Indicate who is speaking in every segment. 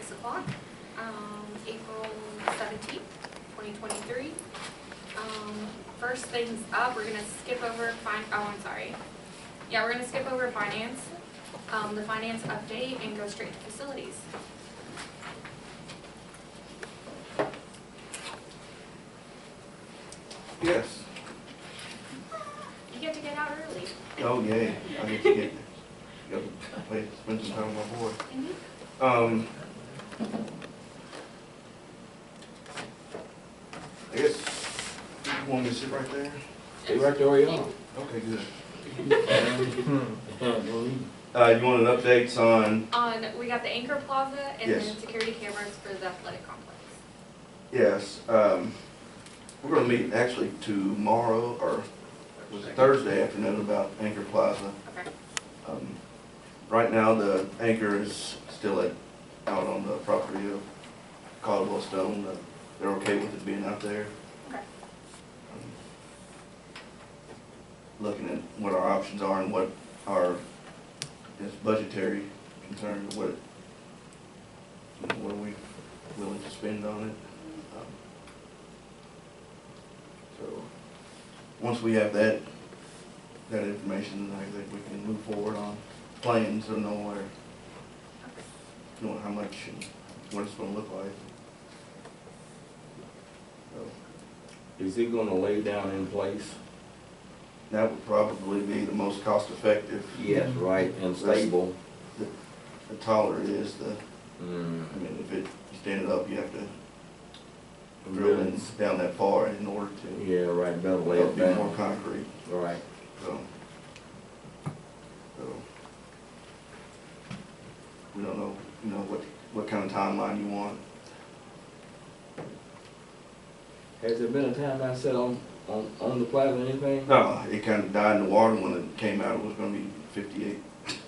Speaker 1: o'clock, um, April seventeenth, twenty twenty-three. Um, first things up, we're gonna skip over fin- oh, I'm sorry. Yeah, we're gonna skip over finance, um, the finance update and go straight to facilities.
Speaker 2: Yes.
Speaker 1: You get to get out early.
Speaker 2: Oh, yay. I get to get, go play, spend some time with my boy.
Speaker 1: Mhm.
Speaker 2: Um, I guess, you want me to sit right there?
Speaker 3: Stay right there where you are.
Speaker 2: Okay, good.
Speaker 3: Hmm.
Speaker 2: Uh, you wanted updates on,
Speaker 1: On, we got the Anchor Plaza and
Speaker 2: Yes.
Speaker 1: then security cameras for the athletic complex.
Speaker 2: yes, um, we're gonna meet actually tomorrow, or was it Thursday afternoon about Anchor Plaza.
Speaker 1: Okay.
Speaker 2: Um, Right now, the anchor is still at, out on the property of Caldwell Stone. Uh, They're okay with it being out there.
Speaker 1: Okay.
Speaker 2: Um, Looking at what our options are and what our, is budgetary concern, what, it- you know, what are we willing to spend on it? Um, So, once we have that that information, I think we can move forward on plans or know where, knowing how much and what it's gonna look like. So,
Speaker 3: Is it gonna lay down in place?
Speaker 2: That would probably be the most cost effective.
Speaker 3: Yes, right, and stable.
Speaker 2: The taller it is, the,
Speaker 3: Mm,
Speaker 2: I mean, if it, you stand it up, you have to drill
Speaker 3: Really?
Speaker 2: in down that far in order to,
Speaker 3: Yeah, right, better lay
Speaker 2: it'll
Speaker 3: it
Speaker 2: be more
Speaker 3: down.
Speaker 2: concrete,
Speaker 3: Right.
Speaker 2: so. So. We don't know, you know, what, what kind of timeline you want.
Speaker 3: Has there been a time I sat on, on, on the plaza or anything?
Speaker 2: No, Uh, it kind of died in the water when it came out, it was gonna be fifty-eight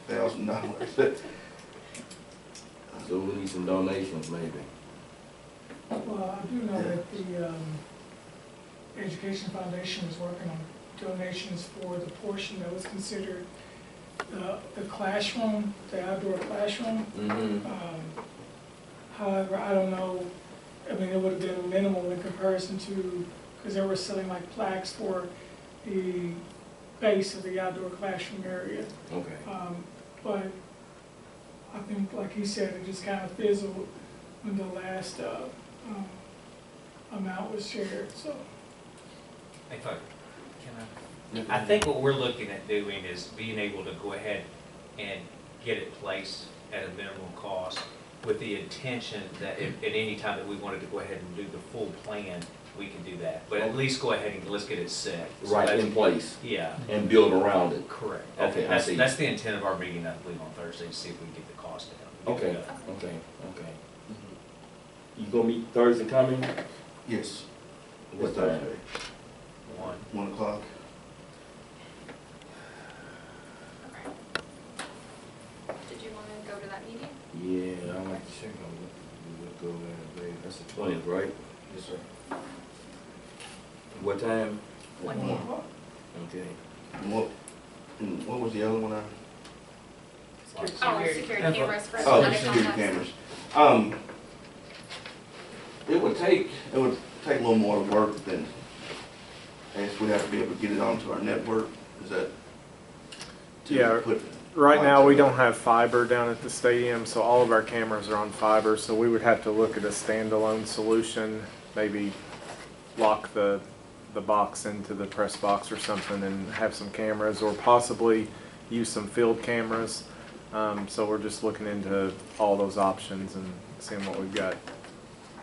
Speaker 2: thousand dollars.
Speaker 3: So we need some donations maybe.
Speaker 4: Well, I do know that the um, Education Foundation is working on donations for the portion that was considered uh, the classroom, the outdoor classroom.
Speaker 3: Mm-hmm.
Speaker 4: Um, However, I don't know, I mean, it would have been minimal in comparison to, because they were selling like plaques for the base of the outdoor classroom area.
Speaker 3: Okay.
Speaker 4: Um, But I think, like he said, it just kind of fizzled when the last uh, um, amount was shared, so.
Speaker 5: Hey, folks, can I? I think what we're looking at doing is being able to go ahead and get it placed at a minimum cost with the intention that if, at any time that we wanted to go ahead and do the full plan, we can do that. But at least go ahead and let's get it set. So
Speaker 3: Right,
Speaker 5: that's-
Speaker 3: in place
Speaker 5: Yeah,
Speaker 3: and build around it.
Speaker 5: correct.
Speaker 3: Okay, I
Speaker 5: That's,
Speaker 3: see.
Speaker 5: that's the intent of our meeting, I believe, on Thursday, to see if we can get the cost down.
Speaker 3: Okay, okay, okay. You gonna meet Thursday coming?
Speaker 2: Mm-hmm. Yes.
Speaker 3: What
Speaker 2: It's
Speaker 3: time?
Speaker 2: Thursday,
Speaker 5: One.
Speaker 2: One o'clock.
Speaker 1: Okay. Did you wanna go to that meeting?
Speaker 3: Yeah, I like to check on what, what go there, babe. That's the twentieth, right?
Speaker 2: Yes, sir.
Speaker 3: What time?
Speaker 1: One
Speaker 2: Yeah.
Speaker 1: day.
Speaker 3: Okay.
Speaker 2: And what, and what was the other one I?
Speaker 1: Oh, security
Speaker 5: Security.
Speaker 1: cameras for
Speaker 2: Oh, the
Speaker 1: athletic
Speaker 2: security
Speaker 1: complex.
Speaker 2: cameras. Um, it would take, it would take a little more work than, I guess we'd have to be able to get it onto our network, is that? to
Speaker 6: Yeah.
Speaker 2: put
Speaker 6: Right now, we
Speaker 2: lights on?
Speaker 6: don't have fiber down at the stadium, so all of our cameras are on fiber, so we would have to look at a standalone solution, maybe lock the, the box into the press box or something and have some cameras, or possibly use some field cameras. Um, so we're just looking into all those options and seeing what we've got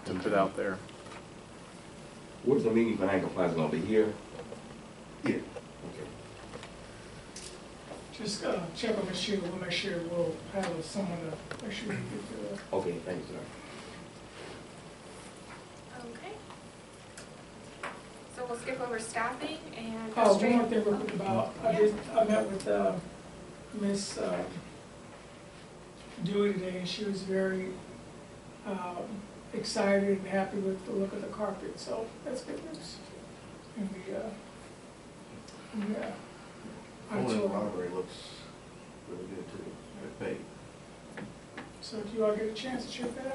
Speaker 6: to put out there.
Speaker 3: Where's the meeting for Hancock Plaza gonna be here?
Speaker 2: Yeah.
Speaker 3: Okay.
Speaker 4: Just uh, check on the shoe, we'll make sure we'll have someone to make sure we get the,
Speaker 3: Okay, thank you, sir.
Speaker 1: Okay. So we'll skip over staffing and go
Speaker 4: oh,
Speaker 1: straight.
Speaker 4: one more thing real quick about, I did, I met with uh, Miss uh, Dewey today, and she was very um, excited and happy with the look of the carpet, so that's good news. And the, uh, yeah. I
Speaker 2: Well, the
Speaker 4: told her.
Speaker 2: library looks really good too, That paint.
Speaker 4: So if you all get a chance to check that out.